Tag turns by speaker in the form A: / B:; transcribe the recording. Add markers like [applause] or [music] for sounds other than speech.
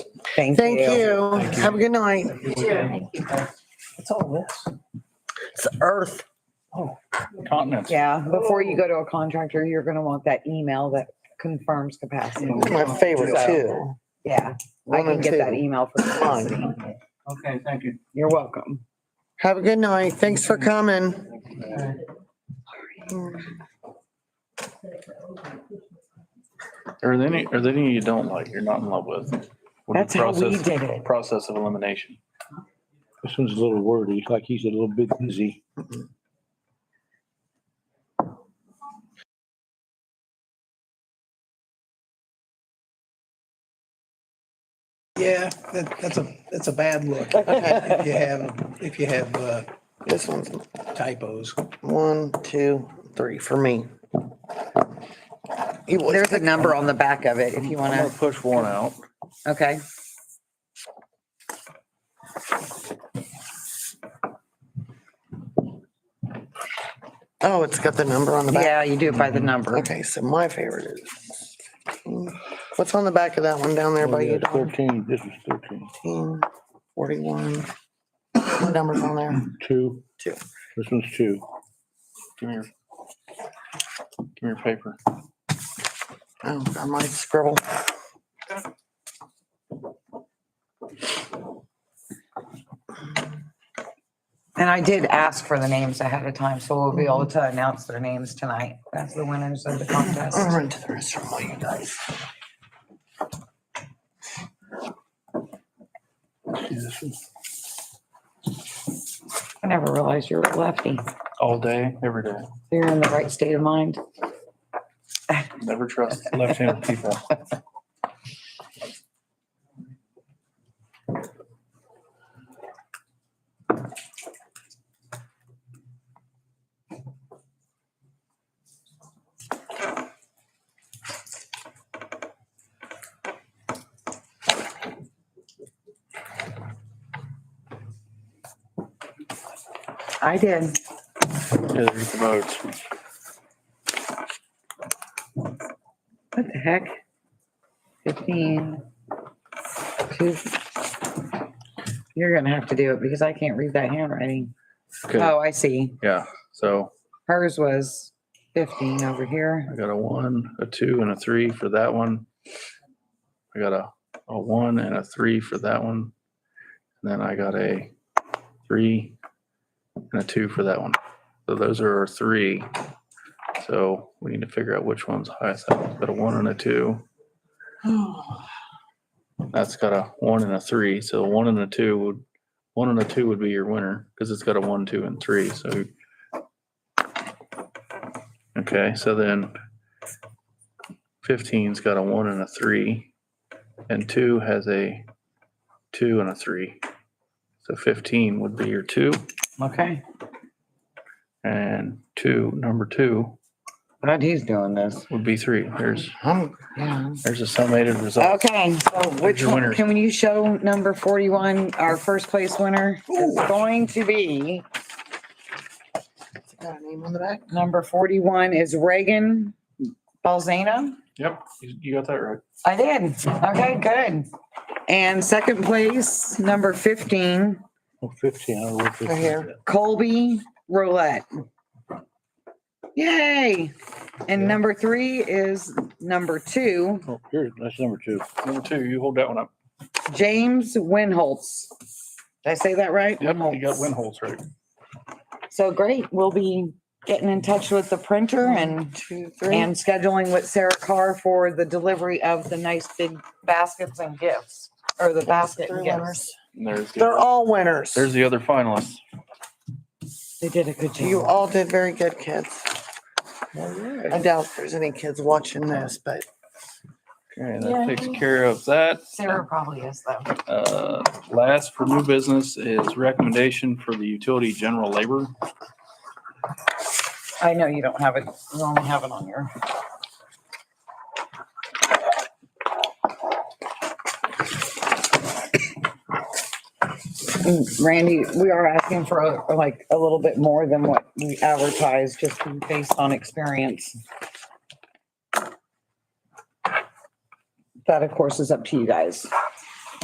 A: Thank
B: Thank
A: you.
B: you. Have a good night.
C: What's all this?
A: It's earth.
C: Continents.
A: Yeah, before you go to a contractor, you're gonna want that email that confirms capacity.
B: My favorite too.
A: Yeah, I
B: One
A: can
B: and
A: get that e-
B: two.
A: email for capacity.
C: Okay, thank you.
A: You're welcome.
B: Have a good night. Thanks for coming.
C: Are there any, are there any you don't like, you're not in love with? Would
A: That's how we
C: process-
A: did it.
C: Process of elimination.
D: This one's a little wordy, like he's a little bit busy.
E: Yeah, that, that's a, that's a bad look. If you have, if you have uh,
B: This one's
E: typos.
B: one, two, three for me. You always
A: There's a
B: pick-
A: number on the back of it if you
C: I'm gonna
A: wanna,
C: push one out.
A: okay?
B: Oh, it's got the number on the back.
A: Yeah, you do it by the Mm-hmm. number.
B: Okay, so my favorite is. What's on the back of that one down there by
D: Oh, yeah,
B: you?
D: it's
B: Don?
D: Thirteen, this was thirteen,
B: 15, 41. What number's on there?
D: two.
B: Two.
D: This one's two.
C: Give me your, give me your paper.
B: Oh, I might scribble.
A: And I did ask for the names ahead of time, so we'll be able to announce their names tonight. That's the winners of the contest.
B: I'll run to the restroom while you guys.
A: I never realized you were a lefty.
C: All day, every day.
A: You're in the right state of mind.
C: Never trust left-handed [laughs] people.
A: I did.
C: Yeah, there's the votes.
A: What the heck? Fifteen. Two. You're gonna have to do it because I can't read that handwriting.
C: Okay,
A: Oh, I see.
C: yeah, so
A: Hers was fifteen over
C: I
A: here.
C: got a one, a two, and a three for that one. I got a, a one and a three for that one. And then I got a three and a two for that one. So those are our three. So we need to figure out which one's highest. That one's got a one and a two. That's got a one and a three. So one and a two would, one and a two would be your winner because it's got a one, two, and three. So. Okay, so then 15's got a one and a three, and two has a two and a three. So 15 would be your two,
A: Okay.
C: and two, number two,
A: Glad he's doing this.
C: would be three. There's,
B: I'm, yeah.
C: there's a summated result.
A: Okay, so which
C: your
A: one,
C: winners?
A: can you show number forty-one, our first place winner? It's going to be,
B: It's got a name on the back.
A: number forty-one is Reagan Balzano.
C: Yep, you you got that right.
A: I did. Okay, good. And second place, number fifteen,
D: Oh, fifteen, I don't know what this
B: Right
D: is.
B: here.
A: Colby Roulette. Yay! And number three is number two,
D: Oh, here, that's number two.
C: Number two, you hold that one up.
A: James Winholtz. Did I say that right?
C: Yep, you got win holes right.
A: So great, we'll be getting in touch with the printer and,
B: Two, three.
A: and scheduling with Sarah Carr for the delivery of the nice big baskets and gifts, or the basket
B: Three
A: and gifts.
B: winners.
C: And There's, the
B: They're
C: other-
B: all winners.
C: there's the other finalists.
A: They did a good
B: You
A: job.
B: all did very good, kids. I doubt there's any kids watching this, but
C: Okay, that takes care of that.
A: Sarah probably is though.
C: Uh, Last for new business is recommendation for the utility general labor.
A: I know you don't have it, you only have it on your. Randy, we are asking for uh, like a little bit more than what we advertised, just based on experience. That, of course, is up to you guys.